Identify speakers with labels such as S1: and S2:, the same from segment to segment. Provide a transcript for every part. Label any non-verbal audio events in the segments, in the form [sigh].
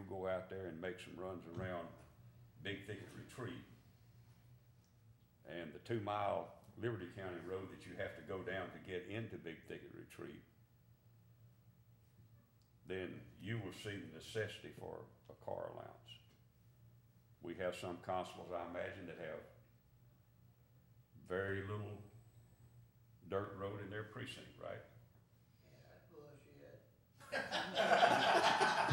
S1: go out there and make some runs around Big Thicket Retreat. And the two mile Liberty County Road that you have to go down to get into Big Thicket Retreat. Then you will see the necessity for a car allowance. We have some constables, I imagine, that have very little dirt road in their precinct, right?
S2: Yeah, that's bullshit.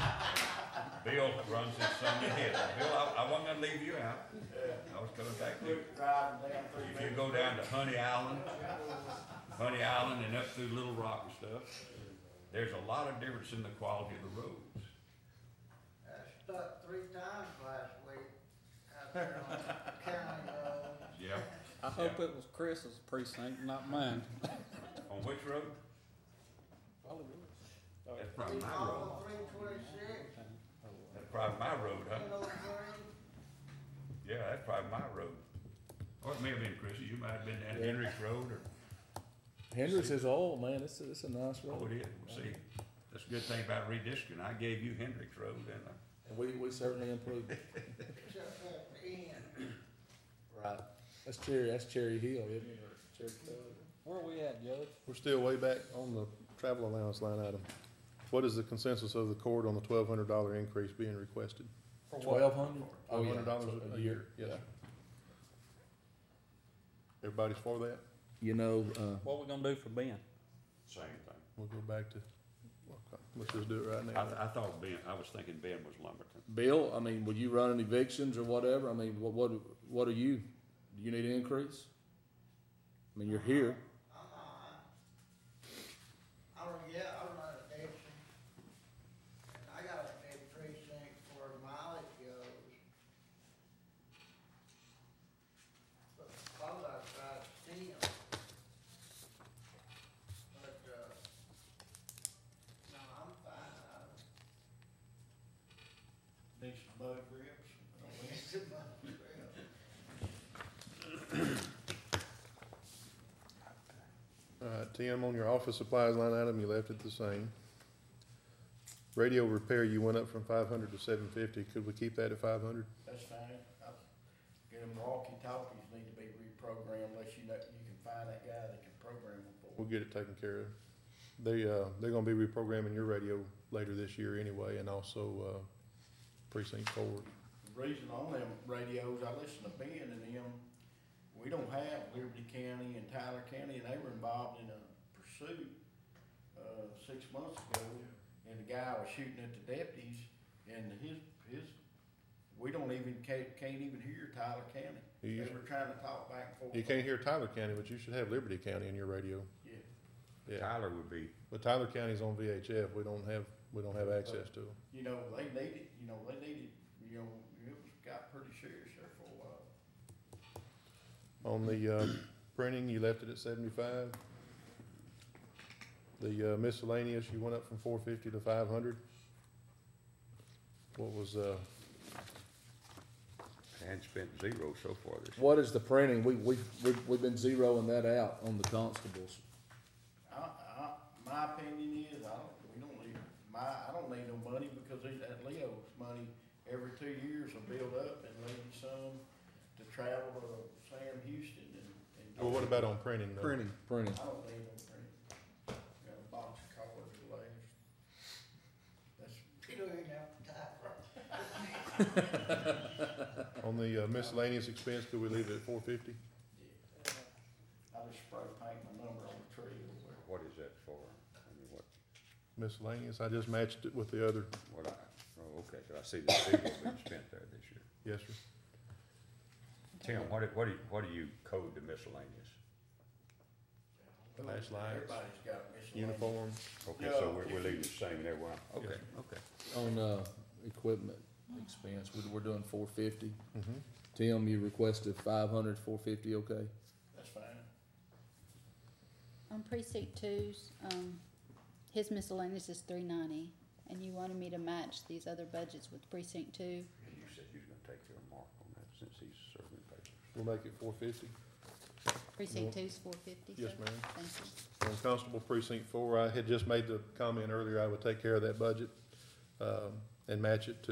S1: Bill runs his son to hell. Bill, I, I wasn't gonna leave you out. I was coming back to you.
S3: driving down through
S1: If you go down to Honey Island, Honey Island and up through Little Rock and stuff, there's a lot of difference in the quality of the roads.
S2: I stuck three times last week out there on County uh, Road.
S1: [laughs] Yeah.
S4: I hope it was Chris's precinct, not mine.
S1: On which road?
S4: Probably was.
S1: That's probably my road.
S2: All three twenty-six,
S1: That's probably my road, huh?
S2: one oh three.
S1: Yeah, that's probably my road. Or it may have been Chris's. You might have been down Henry's Road or
S5: Hendricks is old, man. It's, it's a nice
S1: Oh,
S5: road.
S1: it is, well, see, that's a good thing about redistricting, I gave you Hendricks Road, didn't I?
S5: And we, we certainly improved it.
S2: Except at the end.
S5: Right. That's Cherry, that's Cherry Hill, isn't it? Or Cherry Hill.
S4: Where are we at, Judge?
S6: We're still way back on the travel allowance line item. What is the consensus of the court on the twelve hundred dollar increase being requested?
S4: For what?
S5: Twelve hundred?
S6: Twelve hundred dollars a year, yes. sir. Everybody's for that?
S5: You know, uh,
S4: What we gonna do for Ben?
S1: Same thing.
S6: We'll go back to, okay, let's just do it right
S1: I,
S6: now.
S1: th- I thought Ben, I was thinking Ben was Lumberton.
S5: Bill, I mean, were you running evictions or whatever? I mean, what, what, what are you? Do you need an increase? I mean, you're here.
S2: I'm alright. Uh-huh. I don't, yeah, I run addiction. And I got a big precinct where mileage goes. But probably I try to steal. But, uh, no, I'm fine. I don't-
S3: Need some mud
S2: [laughs]
S3: grips.
S2: It's a bunch of crap.
S6: Uh, Tim, on your office supplies line item, you left it the same. Radio repair, you went up from five hundred to seven fifty. Could we keep that at five hundred?
S3: That's fine. I Get them walkie talkies need to be reprogrammed unless you know, you can find that guy that can program them for.
S6: We'll get it taken care of. They, uh, they're gonna be reprogramming your radio later this year anyway, and also, uh, precinct four.
S3: The reason on them radios, I listen to Ben and them, we don't have Liberty County and Tyler County, and they were involved in a pursuit, uh, six months ago, and the guy was shooting at the deputies, and his, his, we don't even, can't, can't even hear Tyler County.
S6: You,
S3: They
S6: use-
S3: were trying to talk back and forth.
S6: you can't hear Tyler County, but you should have Liberty County in your radio.
S3: Yeah.
S6: Yeah,
S1: Tyler would be,
S6: but Tyler County's on VHF. We don't have, we don't have access to them.
S3: you know, they needed, you know, they needed, you know, it was, got pretty serious there for a while.
S6: On the, uh, printing, you left it at seventy-five. The uh, miscellaneous, you went up from four fifty to five hundred. What was, uh,
S1: had spent zero so far this year.
S5: What is the printing? We, we, we've, we've been zeroing that out on the constables.
S3: I, I, my opinion is, I don't, we don't need, my, I don't need no money because it- that Leo's money every two years will build up and leave you some to travel to Sam Houston and, and.
S6: well, what about on printing though?
S5: Printing. Printing.
S3: I don't need no print. Got a box of cards to lay. That's,
S2: You don't even have to type.
S6: On the uh, miscellaneous expense, could we leave it at four fifty?
S3: I just spray paint my number on the tree or whatever.
S1: What is that for? I mean, what,
S6: Miscellaneous, I just matched it with the other,
S1: what I, oh, okay, so I see the zero being spent there this year.
S6: yes, sir.
S1: Tim, what, do- what do, you- what do you code the miscellaneous?
S6: Flashlights.
S3: Everybody's got miscellaneous.
S6: Uniform,
S1: Okay, so
S3: Yeah.
S1: we're, we're leaving the same there, wow, okay,
S6: Yes,
S1: okay.
S5: On, uh, equipment expense, we're, we're doing four fifty.
S6: mhm.
S5: Tim, you requested five hundred, four fifty, okay?
S3: That's fine.
S7: On precinct two's, um, his miscellaneous is three ninety, and you wanted me to match these other budgets with precinct two.
S1: And you said you was gonna take your mark on that since he's serving papers.
S6: We'll make it four fifty.
S7: Precinct two's four fifty, so,
S6: Yes, ma'am.
S7: thank you.
S6: On Constable Precinct Four, I had just made the comment earlier, I would take care of that budget, um, and match it to